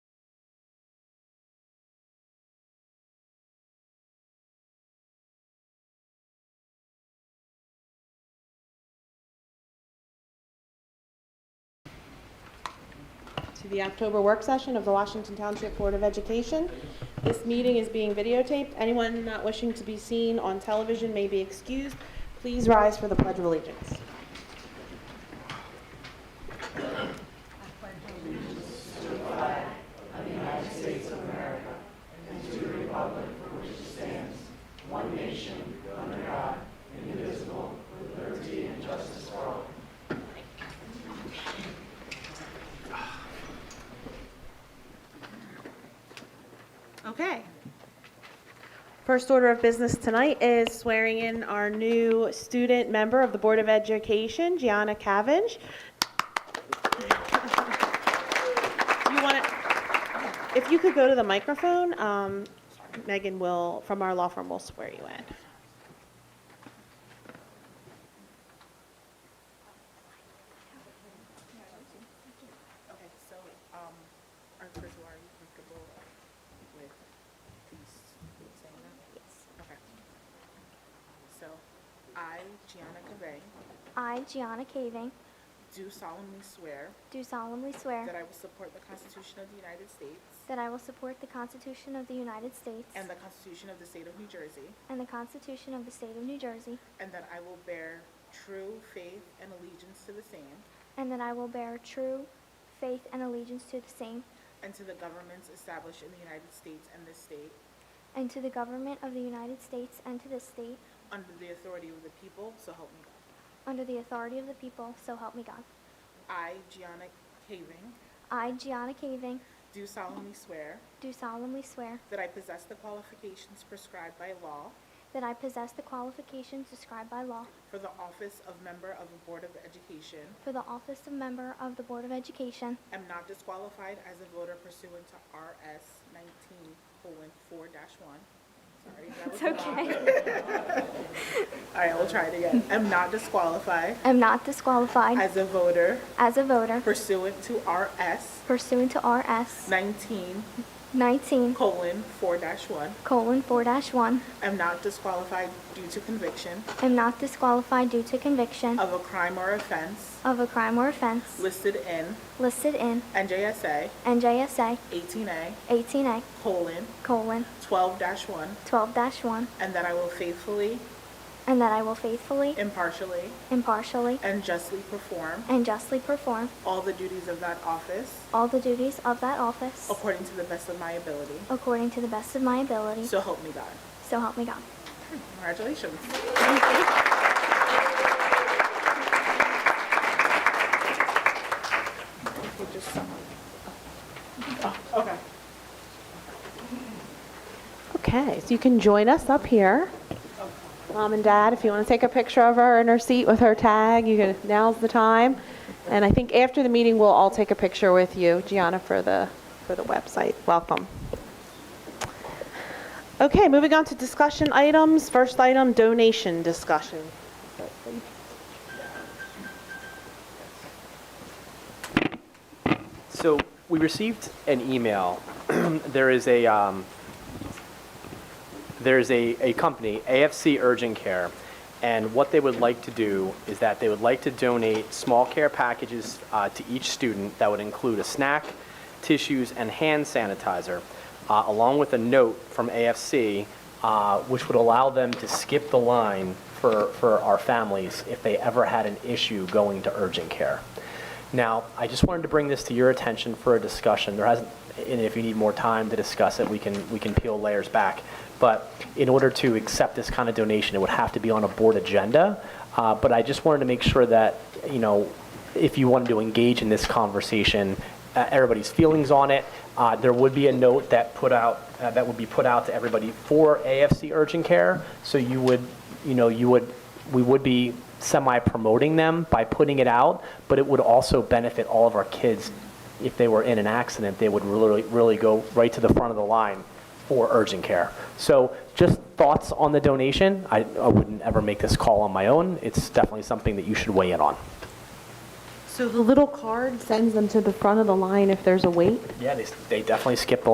the October work session of the Washington Township Board of Education. This meeting is being videotaped. Anyone not wishing to be seen on television may be excused. Please rise for the Pledge of Allegiance. Okay. First order of business tonight is swearing in our new student member of the Board of Education, Gianna Cavendish. You want to, if you could go to the microphone, um, Megan will, from our law firm, will swear you in. Okay, so, um, are, first of all, are you comfortable with these saying that? Yes. Okay. So, I, Gianna Cavay, I, Gianna Caving, do solemnly swear do solemnly swear that I will support the Constitution of the United States that I will support the Constitution of the United States and the Constitution of the State of New Jersey, and the Constitution of the State of New Jersey, and that I will bear true faith and allegiance to the same and that I will bear true faith and allegiance to the same and to the governments established in the United States and this state, and to the government of the United States and to this state under the authority of the people, so help me God. under the authority of the people, so help me God. I, Gianna Caving, I, Gianna Caving, do solemnly swear do solemnly swear That I possess the qualifications prescribed by law that I possess the qualifications described by law for the office of member of a Board of Education. for the office of member of the Board of Education. Am not disqualified as a voter pursuant to RS nineteen four one. Sorry, that was It's a lot. okay. All right, we'll try it again. Am not disqualified Am not disqualified as a voter as a voter pursuant to RS pursuant to RS nineteen 19 four one. colon 4-1 Am not disqualified due to conviction am not disqualified due to conviction of a crime or offense of a crime or offense listed in listed in NJSA NJSA eighteen A 18A colon colon 12-1, 12-1 and that I will faithfully, and that I will faithfully, impartially, impartially, and justly perform and justly perform all the duties of that office all the duties of that office according to the best of my ability. according to the best of my ability, So help me God. so help me God. Congratulations. We'll just- Oh, Okay. Okay, so you can join us up here. Mom and Dad, if you want to take a picture of her in her seat with her tag, you can, now's the time. And I think after the meeting, we'll all take a picture with you, Gianna, for the, for the website. Welcome. Okay, moving on to discussion items. First item, donation discussion. So we received an email. there is a um, there is a, a company, AFC Urgent Care, and what they would like to do is that they would like to donate small care packages uh, to each student that would include a snack, tissues, and hand sanitizer, uh, along with a note from AFC, uh, which would allow them to skip the line for, for our families if they ever had an issue going to urgent care. Now, I just wanted to bring this to your attention for a discussion. There hasn't, and if you need more time to discuss it, we can, we can peel layers back. But in order to accept this kind of donation, it would have to be on a board agenda. Uh, But I just wanted to make sure that, you know, if you wanted to engage in this conversation, uh, everybody's feelings on it. Uh, There would be a note that put out, uh, that would be put out to everybody for AFC Urgent Care. So you would, you know, you would we would be semi-promoting them by putting it out, but it would also benefit all of our kids. If they were in an accident, they would really, really go right to the front of the line for urgent care. So just thoughts on the donation. I, I wouldn't ever make this call on my own. It's definitely something that you should weigh in on. So the little card sends them to the front of the line if there's a wait? Yeah, they, they definitely skipped the